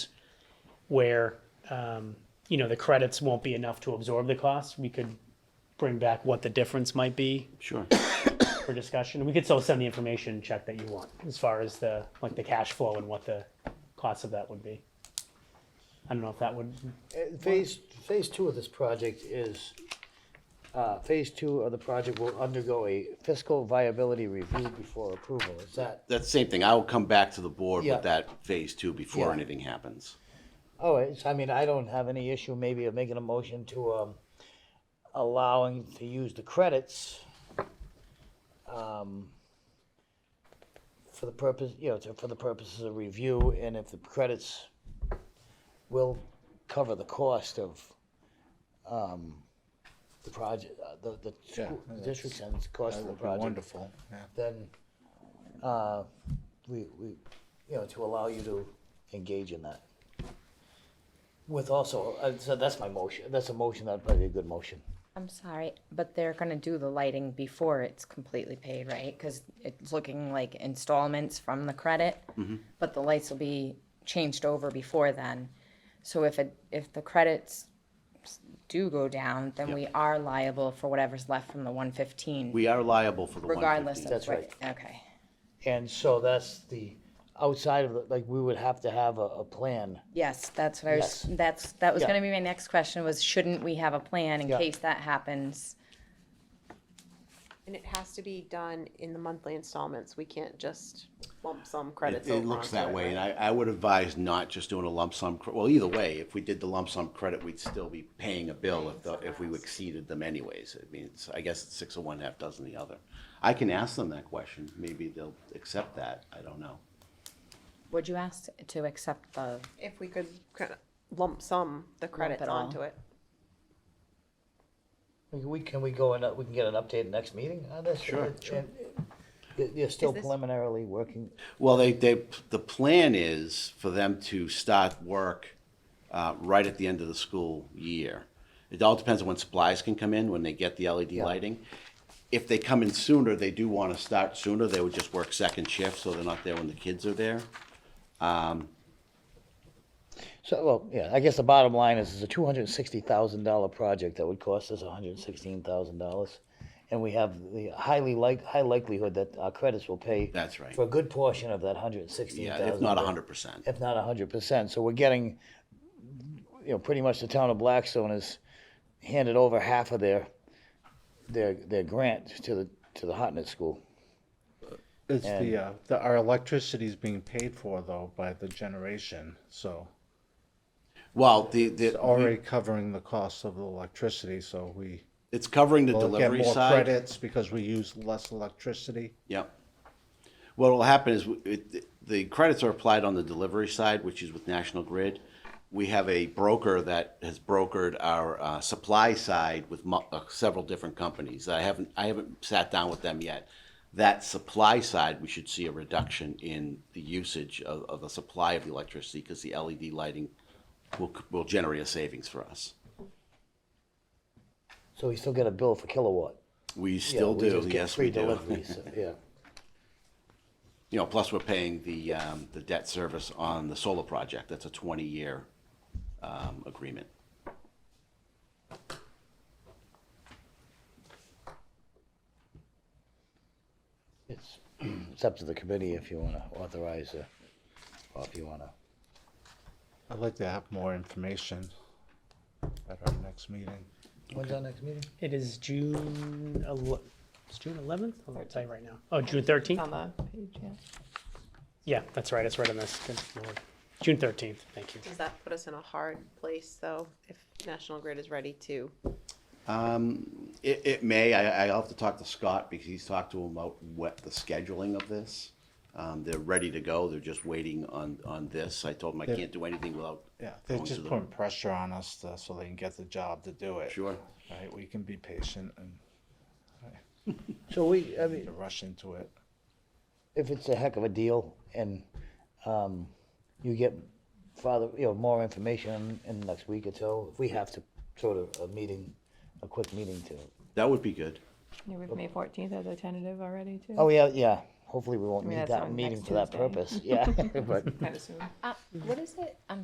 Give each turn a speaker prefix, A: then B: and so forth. A: where, um, you know, the credits won't be enough to absorb the cost, we could bring back what the difference might be
B: Sure.
A: for discussion. We could still send the information check that you want as far as the, like the cash flow and what the cost of that would be. I don't know if that would,
C: Uh, Phase, phase two of this project is, uh, phase two of the project will undergo a fiscal viability review before approval. Is that,
B: That's the same thing. I will come back to the board
C: Yeah.
B: with that phase two before
C: Yeah.
B: anything happens.
C: oh, it's, I mean, I don't have any issue maybe of making a motion to, um, allowing to use the credits, um, for the purpose, you know, to- for the purposes of review, and if the credits will cover the cost of, um, the project, uh, the, the
D: Yeah,
C: school- the
D: that's-
C: district's and the cost
D: That
C: of the
D: would be
C: project.
D: wonderful. yeah.
C: then uh, we, we, you know, to allow you to engage in that. With also, uh, so that's my motion, that's a motion, that'd probably be a good motion.
E: I'm sorry, but they're gonna do the lighting before it's completely paid, right? Cause it's looking like installments from the credit.
C: Mm-hmm.
E: But the lights will be changed over before then. So if it, if the credits do go down, then we are liable for whatever's left from the one fifteen.
B: We are liable for the 115.
E: Regardless of
C: That's
E: what, okay.
C: And so that's the, outside of, the like, we would have to have a, a plan.
E: Yes, that's what I was,
C: Yes.
E: that's, that was
C: Yeah.
E: gonna be my next question was, shouldn't we have a plan in
C: Yeah.
E: case that happens?
F: And it has to be done in the monthly installments. We can't just lump sum
B: It,
F: credits over
B: it looks
F: onto
B: that
F: it,
B: way, and
F: right?
B: I, I would advise not just doing a lump sum, cr- well, either way, if we did the lump sum credit, we'd still be paying a bill if, the- if we exceeded them anyways. I mean, it's, I guess it's six of one, half dozen the other. I can ask them that question. Maybe they'll accept that. I don't know.
E: Would you ask to accept the,
F: If we could kind of lump sum the credits
E: it all.
F: onto it.
C: We, can we go and, uh, we can get an update next meeting on this?
B: Sure.
C: And- and You're still
F: Is this-
C: preliminarily working,
B: Well, they, they, the plan is for them to start work uh, right at the end of the school year. It all depends on when supplies can come in, when they get the LED lighting. If they come in sooner, they do want to start sooner, they would just work second shift, so they're not there when the kids are there.
C: so, well, yeah, I guess the bottom line is, it's a two hundred and sixty thousand dollar project that would cost us hundred and sixteen thousand dollars. And we have the highly like, high likelihood that our credits will pay.
B: That's right.
C: For a good portion of that hundred and sixteen
B: Yeah,
C: thousand.
B: if not hundred percent.
C: If not hundred percent, so we're getting, you know, pretty much the town of Blackstone has handed over half of their, their, their grant to the, to the Hotnet School.
D: It's the, uh, the, our electricity's being paid for though by the generation, so
B: Well, the,
D: it's
B: the,
D: already covering the cost of the electricity, so we
B: it's covering the
D: will get
B: delivery
D: more
B: side.
D: credits because we use less electricity.
B: Yep. What will happen is w- it, the credits are applied on the delivery side, which is with National Grid. We have a broker that has brokered our uh, supply side with mu- uh, several different companies. I haven't I haven't sat down with them yet. That supply side, we should see a reduction in the usage of, of the supply of the electricity because the LED lighting will c- will generate a savings for us.
C: So we still get a bill for kilowatt.
B: We still
C: Yeah, we
B: do.
C: just get
B: yes,
C: free
B: we do.
C: deliveries, Yeah.
B: You know, plus we're paying the, um, the debt service on the solar project. That's a twenty-year, um, agreement.
C: It's, it's up to the committee if you wanna authorize, uh, or if you wanna.
D: I'd like to have more information at our next meeting.
C: When's our next meeting?
A: it is June, ele- it's June eleventh? I'll tell you right now. Oh, June thirteenth?
F: On the page, yeah.
A: Yeah, that's right, it's right on this, good lord. June thirteenth, thank you.
F: Does that put us in a hard place though, if National Grid is ready to?
B: It, it may, I, I'll have to talk to Scott because he's talked to him about what the scheduling of this. Um, they're ready to go. They're just waiting on, on this. I told him I
D: They're-
B: can't do anything without.
D: Yeah, they're
B: going to
D: just
B: the-
D: putting pressure on us to, so they can get the job to do it.
B: Sure.
D: Right, we can be patient and
C: So we, I mean,
D: to rush into it.
C: if it's a heck of a deal and um, you get farther, you know, more information in the next week or so, if we have to sort of a meeting, a quick meeting to.
B: That would be good.
G: Yeah, we've May fourteenth as a tentative already too.
C: Oh yeah, yeah. Hopefully we won't
G: I mean,
C: need
G: that's
C: that
G: on
C: meeting
G: next
C: for that
G: Tuesday.
C: purpose. Yeah, but
G: Kind of soon.
E: uh, what is it? I'm